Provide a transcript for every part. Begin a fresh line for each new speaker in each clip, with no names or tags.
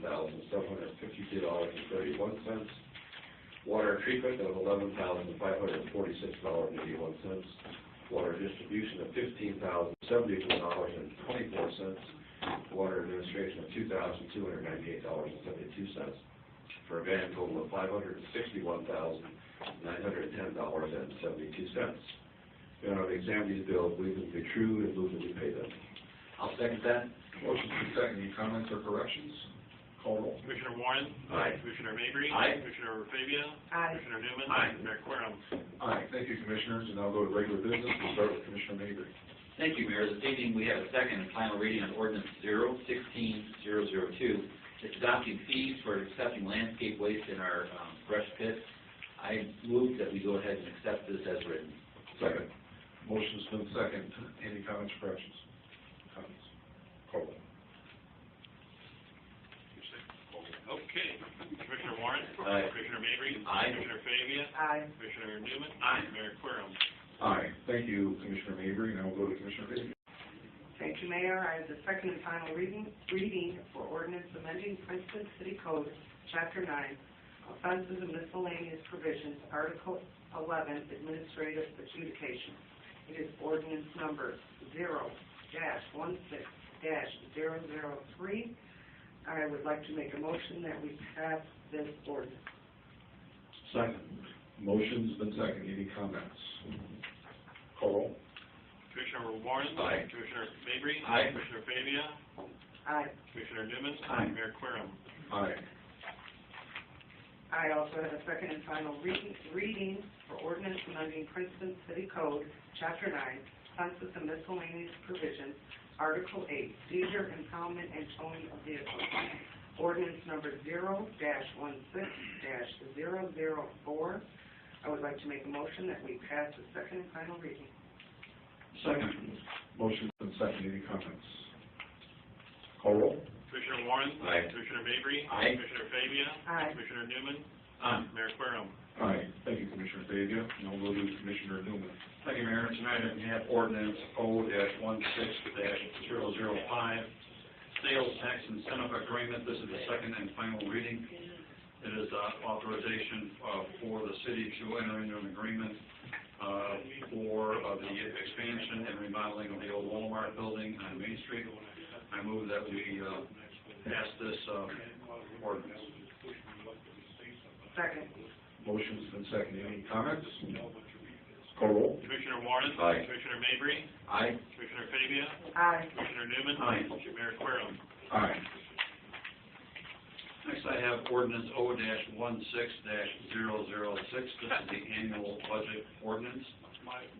seven hundred fifty-two dollars and thirty-one cents. Water treatment of eleven thousand five hundred forty-six dollars and eighty-one cents. Water distribution of fifteen thousand seventy-one dollars and twenty-four cents. Water administration of two thousand two hundred ninety-eight dollars and seventy-two cents. For a grand total of five hundred sixty-one thousand nine hundred ten dollars and seventy-two cents. Your Honor, we examine these bills, believe them to be true, and move that we pay them. I'll second that.
Motion to second, any comments or corrections? Call roll.
Commissioner Warren?
Aye.
Commissioner Mabry?
Aye.
Commissioner Fabia?
Aye.
Commissioner Newman?
Aye.
Mayor Querem?
Aye, thank you, Commissioners, and I'll go to regular business, we'll start with Commissioner Mabry.
Thank you, Mayor. This evening, we have a second and final reading on ordinance 016002. It's adopting fees for accepting landscape waste in our um, brush pits. I move that we go ahead and accept this as written.
Second. Motion's been second, any comments or corrections? Comments? Call roll.
Okay. Commissioner Warren?
Aye.
Commissioner Mabry?
Aye.
Commissioner Fabia?
Aye.
Commissioner Newman?
Aye.
Mayor Querem?
Aye, thank you, Commissioner Mabry, now we'll go to Commissioner Fabia.
Thank you, Mayor. I have the second and final reading, reading for ordinance amending Princeton City Code, Chapter 9, Offenses and Miscellaneous Provisions, Article 11, Administrative Adjudication. It is ordinance number 0-16-003. I would like to make a motion that we pass this ordinance.
Second. Motion's been second, any comments? Call roll.
Commissioner Warren?
Aye.
Commissioner Mabry?
Aye.
Commissioner Fabia?
Aye.
Commissioner Newman?
Aye.
Mayor Querem?
Aye.
I also have a second and final reading, reading for ordinance amending Princeton City Code, Chapter 9, Census and Miscellaneous Provisions, Article 8, Seizure, Impoundment, and Towing of Vehicles. Ordinance number 0-16-004. I would like to make a motion that we pass the second and final reading.
Second. Motion's been second, any comments? Call roll.
Commissioner Warren?
Aye.
Commissioner Mabry?
Aye.
Commissioner Fabia?
Aye.
Commissioner Newman?
Aye.
Mayor Querem?
Aye, thank you, Commissioner Fabia, now we'll go to Commissioner Newman.
Thank you, Mayor. Tonight we have ordinance O dash one six dash zero zero five, sales tax incentive agreement. This is the second and final reading. It is uh, authorization uh, for the city to enter into an agreement uh, for uh, the expansion and remodeling of the old Walmart building on Main Street. I move that we uh, pass this uh, ordinance.
Second.
Motion's been second, any comments? Call roll.
Commissioner Warren?
Aye.
Commissioner Mabry?
Aye.
Commissioner Fabia?
Aye.
Commissioner Newman?
Aye.
Mayor Querem?
Aye.
Next, I have ordinance O dash one six dash zero zero six. This is the annual budget ordinance.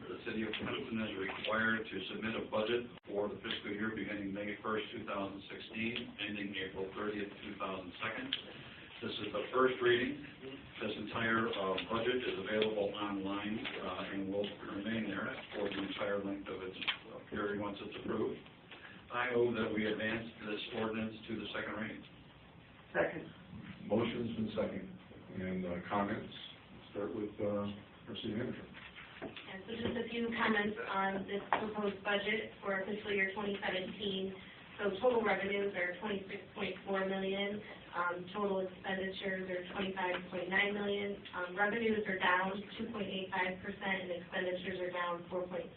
The city of Princeton is required to submit a budget for the fiscal year beginning May first, two thousand sixteen, ending April thirtieth, two thousand second. This is the first reading. This entire, uh, budget is available online, uh, and will remain there for the entire length of its uh, period once it's approved. I move that we advance this ordinance to the second reading.
Second.
Motion's been second, and uh, comments, start with, uh, our city manager.
And so just a few comments on this proposed budget for fiscal year 2017. So total revenues are 26.4 million, um, total expenditures are 25.9 million. Um, Revenues are down 2.85% and expenditures are down 4.75%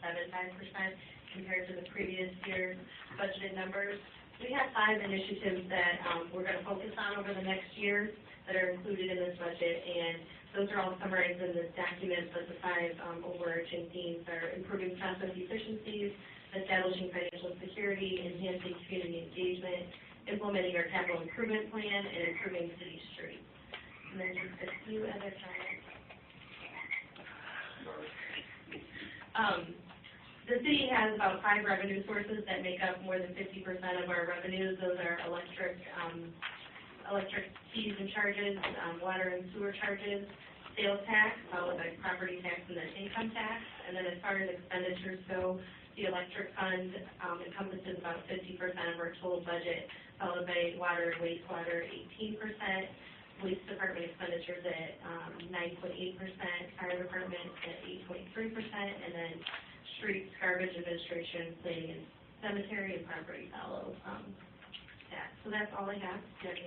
compared to the previous year's budgeted numbers. We have five initiatives that um, we're going to focus on over the next year that are included in this budget, and those are all summarized in this document, but the five um, overarching themes are improving process efficiencies, establishing financial security, enhancing community engagement, implementing our capital improvement plan, and improving city streets. And then just a few other comments. Um, The city has about five revenue sources that make up more than 50% of our revenues. Those are electric, um, electric fees and charges, um, water and sewer charges, sales tax, followed by property tax and then income tax. And then as far as expenditures go, the electric fund um, encompasses about fifty percent of our total budget, followed by water and wastewater eighteen percent, police department expenditures at um, nine point eight percent, fire department at eight point three percent, and then streets, garbage administration, planning and cemetery and property follow um, that. So that's all I have. Do you have any